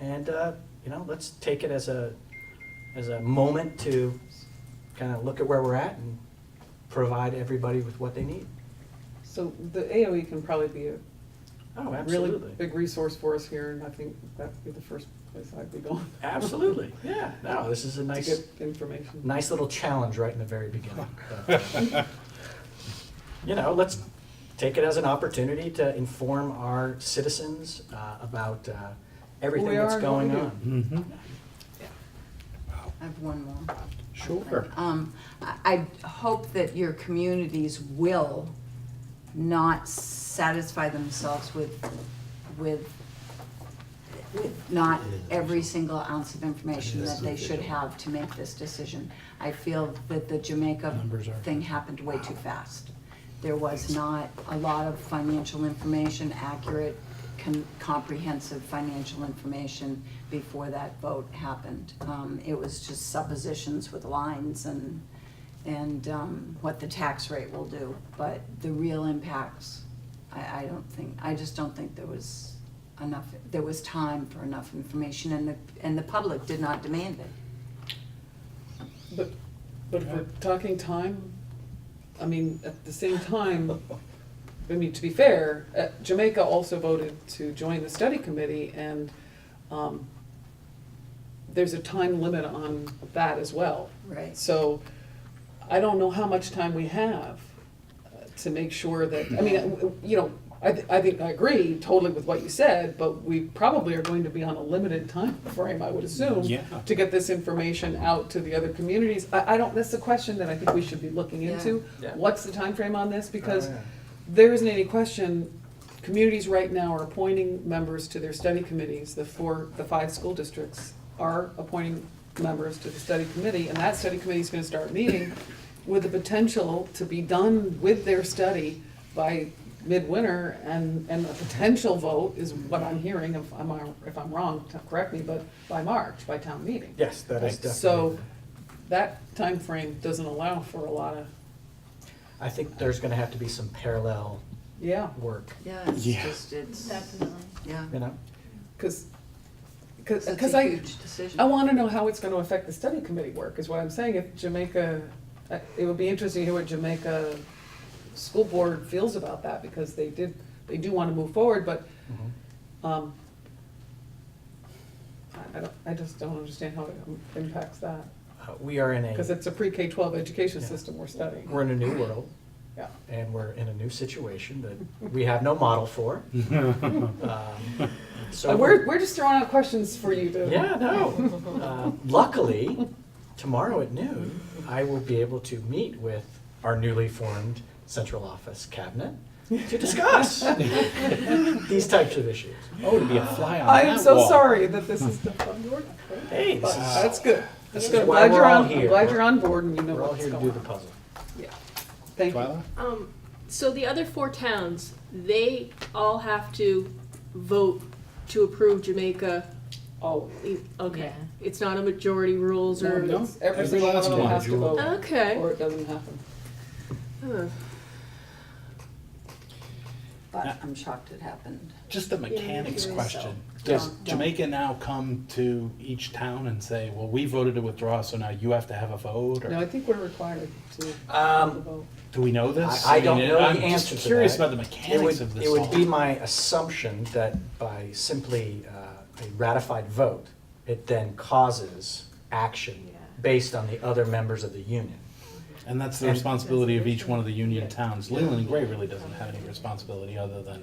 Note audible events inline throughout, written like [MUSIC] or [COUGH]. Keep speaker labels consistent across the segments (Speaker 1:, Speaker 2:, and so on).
Speaker 1: And, uh, you know, let's take it as a, as a moment to kind of look at where we're at and provide everybody with what they need.
Speaker 2: So the AOE can probably be a
Speaker 1: Oh,
Speaker 2: really
Speaker 1: absolutely.
Speaker 2: big resource for us here, and I think that'd be the first place I'd be going
Speaker 1: Absolutely, yeah. No, this is a
Speaker 2: [LAUGHS] to
Speaker 1: nice,
Speaker 2: get information.
Speaker 1: nice little challenge right in the very beginning. But, You know, let's take it as an opportunity to inform our citizens uh, about uh, everything
Speaker 2: We
Speaker 1: that's
Speaker 2: are
Speaker 1: going
Speaker 2: going to.
Speaker 1: on.
Speaker 3: Mm-hmm.
Speaker 4: I have one more.
Speaker 3: Sure.
Speaker 4: Um, I, I hope that your communities will not satisfy themselves with, with, with not every single ounce of information that they should have to make this decision. I feel that the Jamaica
Speaker 3: Numbers are-
Speaker 4: thing happened way too fast. There was not a lot of financial information, accurate, com- comprehensive financial information before that vote happened. Um, It was just suppositions with lines and, and um, what the tax rate will do. But the real impacts, I, I don't think, I just don't think there was enough, there was time for enough information and the, and the public did not demand it.
Speaker 2: But, but if we're talking time, I mean, at the same time, I mean, to be fair, uh, Jamaica also voted to join the study committee, and um, there's a time limit on that as well.
Speaker 4: Right.
Speaker 2: So I don't know how much time we have uh, to make sure that, I mean, uh, you know, I, thi- I think, I agree totally with what you said, but we probably are going to be on a limited time frame, I would assume,
Speaker 3: Yeah.
Speaker 2: to get this information out to the other communities. I, I don't, that's a question that I think we should be looking
Speaker 4: Yeah.
Speaker 2: into.
Speaker 1: Yeah.
Speaker 2: What's the time frame on this? Because
Speaker 1: Oh, yeah.
Speaker 2: there isn't any question, communities right now are appointing members to their study committees. The four, the five school districts are appointing members to the study committee, and that study committee is gonna start meeting with the potential to be done with their study by midwinter, and, and a potential vote is what I'm hearing, if I'm, if I'm wrong, t- correct me, but by March, by town meeting.
Speaker 1: Yes, that is definitely.
Speaker 2: So, that time frame doesn't allow for a lot of,
Speaker 1: I think there's going to have to be some parallel
Speaker 2: yeah.
Speaker 1: work,
Speaker 4: Yeah, it's
Speaker 3: Yeah.
Speaker 4: just, it's,
Speaker 5: Definitely.
Speaker 4: yeah.
Speaker 1: you know?
Speaker 2: Because,
Speaker 4: It's a
Speaker 2: because I,
Speaker 4: huge decision.
Speaker 2: I want to know how it's going to affect the study committee work, is what I'm saying. If Jamaica, uh, it would be interesting to hear what Jamaica School Board feels about that, because they did, they do want to move forward, but
Speaker 1: Mhm.
Speaker 2: um, I- I don't, I just don't understand how it impacts that,
Speaker 1: Uh, We are in
Speaker 2: because
Speaker 1: a,
Speaker 2: it's a pre-K-12 education
Speaker 1: Yeah.
Speaker 2: system we're studying.
Speaker 1: we're in a new world,
Speaker 2: Yeah.
Speaker 1: and we're in a new situation that we have no model for. Um, So
Speaker 2: Uh, We're, we're just throwing out questions for you to.
Speaker 1: Yeah, no. Uh, Luckily, tomorrow at noon, I will be able to meet with our newly formed central office cabinet to
Speaker 2: [LAUGHS]
Speaker 1: discuss these types of issues.
Speaker 3: Oh, to be a fly on
Speaker 2: I am
Speaker 3: that
Speaker 2: so
Speaker 3: wall.
Speaker 2: sorry that this is the fun word.
Speaker 1: Hey, this
Speaker 2: But
Speaker 1: is-
Speaker 2: That's good. That's
Speaker 1: is
Speaker 2: good. I'm
Speaker 1: why
Speaker 2: glad
Speaker 1: we're
Speaker 2: you're
Speaker 1: all
Speaker 2: on, I'm
Speaker 1: here.
Speaker 2: glad you're on board and you know
Speaker 1: We're all
Speaker 2: what's
Speaker 1: here to
Speaker 2: going
Speaker 1: do the
Speaker 2: on.
Speaker 1: puzzle.
Speaker 2: Yeah. Thank you.
Speaker 3: Twyla?
Speaker 5: Um, so the other four towns, they all have to vote to approve Jamaica.
Speaker 2: Oh,
Speaker 5: E- Okay, it's not a majority rules or.
Speaker 3: No,
Speaker 2: it's every
Speaker 3: every
Speaker 2: single one
Speaker 3: last
Speaker 2: of them
Speaker 3: one.
Speaker 2: has to vote,
Speaker 5: Okay.
Speaker 2: or it doesn't happen.
Speaker 5: Huh.
Speaker 4: But I'm shocked it happened.
Speaker 3: Just the mechanics
Speaker 5: Yeah, so-
Speaker 3: question. Does
Speaker 4: Don't- don't.
Speaker 3: Jamaica now come to each town and say, well, we voted to withdraw, so now you have to have a vote?
Speaker 2: No, I
Speaker 3: Or
Speaker 2: think we're required to have a
Speaker 1: Um,
Speaker 2: vote.
Speaker 3: do we know this?
Speaker 1: I- I don't
Speaker 3: mean,
Speaker 1: know the
Speaker 3: I'm just
Speaker 1: answer to
Speaker 3: Curious
Speaker 1: that.
Speaker 3: about the
Speaker 1: It would,
Speaker 3: mechanics of this
Speaker 1: it would be
Speaker 3: all.
Speaker 1: my assumption that by simply uh, a ratified vote, it then causes action
Speaker 5: Yeah.
Speaker 1: based on the other members of the union.
Speaker 3: And that's the
Speaker 1: and-
Speaker 3: responsibility of each one of the union towns. Leland and Gray really doesn't have any responsibility other than,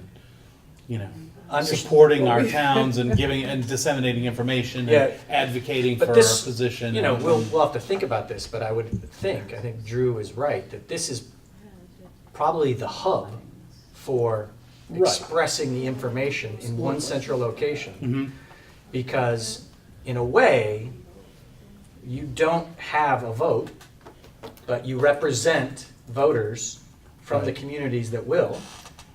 Speaker 3: you know,
Speaker 1: Underst-
Speaker 3: supporting our towns and giving, and disseminating information
Speaker 1: Yeah.
Speaker 3: and advocating for
Speaker 1: But
Speaker 3: our
Speaker 1: this,
Speaker 3: position.
Speaker 1: You know,
Speaker 3: and-
Speaker 1: we'll, we'll have to think about this, but I would think, I think Drew is right, that this is probably the hub for
Speaker 3: Right.
Speaker 1: expressing the information in one central location.
Speaker 3: Mhm.
Speaker 1: Because in a way, you don't have a vote, but you represent voters from the
Speaker 3: Right.
Speaker 1: communities that will.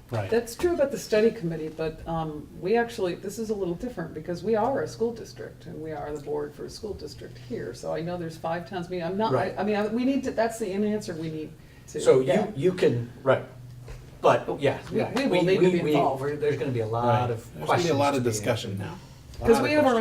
Speaker 3: Right.
Speaker 2: That's true about the study committee, but um, we actually, this is a little different because we are a school district and we are the board for a school district here. So I know there's five towns, I mean, I'm not, I
Speaker 1: Right.
Speaker 2: I mean, I- we need to, that's the in- answer we need to.
Speaker 1: So
Speaker 2: get.
Speaker 1: you, you can, right, but, yeah,
Speaker 2: We-
Speaker 1: yeah.
Speaker 2: we will need to be
Speaker 1: we-
Speaker 2: involved.
Speaker 1: we're- There's gonna be a
Speaker 3: Right.
Speaker 1: lot of
Speaker 3: There's
Speaker 1: questions.
Speaker 3: gonna be a lot of
Speaker 1: to be answered.
Speaker 3: discussion now. A lot
Speaker 2: Because
Speaker 3: of
Speaker 2: we have our
Speaker 3: questions.